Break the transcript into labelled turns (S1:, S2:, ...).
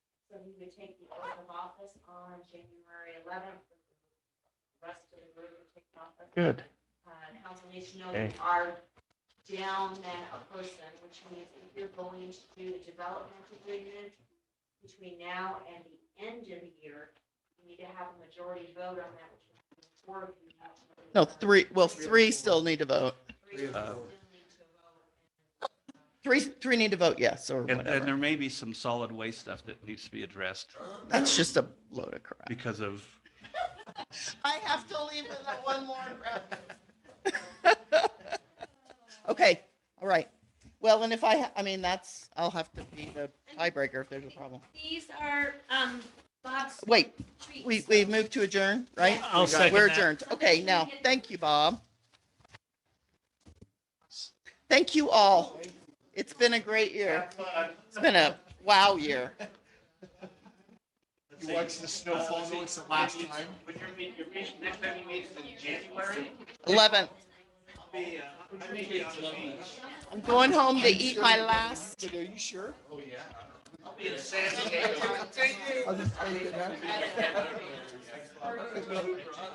S1: you would take the oath of office on January eleventh. The Rest of the group would take office.
S2: Good.
S1: Uh, Council needs to know
S2: Okay.
S1: you are down then a person, which means if you're going to do the development agreement between now and the end of the year, you need to have a majority vote on that. which would be four of you.
S3: No, three, well, three still need to vote.
S1: Three of you
S2: Uh,
S1: still need to vote.
S3: Three, three need to vote yes or
S2: And, and
S3: whatever.
S2: there may be some solid waste stuff that needs to be addressed
S3: That's just a load of crap.
S2: because of,
S3: I have to leave with that one more crap. Okay, all right. Well, and if I, ha- I mean, that's, I'll have to be the tiebreaker if there's a problem.
S4: These are, um, Bob's
S3: Wait,
S4: treats.
S3: we, we moved to adjourn, right?
S5: I'll second
S3: We're
S5: that.
S3: adjourned. Okay, now, thank you, Bob. Thank you all. It's been a great year. It's been a wow year.
S6: You watched the snowfall notes the last time.
S5: When you're meeting, your meeting, next time you meet is in January.
S3: 11th.
S5: I'll be, uh, I may be on the beach.
S3: I'm going home to eat my last.
S6: Did- Are you sure? Oh, yeah.
S5: I'll be in San Diego.
S6: I'll just tell you that.
S5: There's no Uber, huh?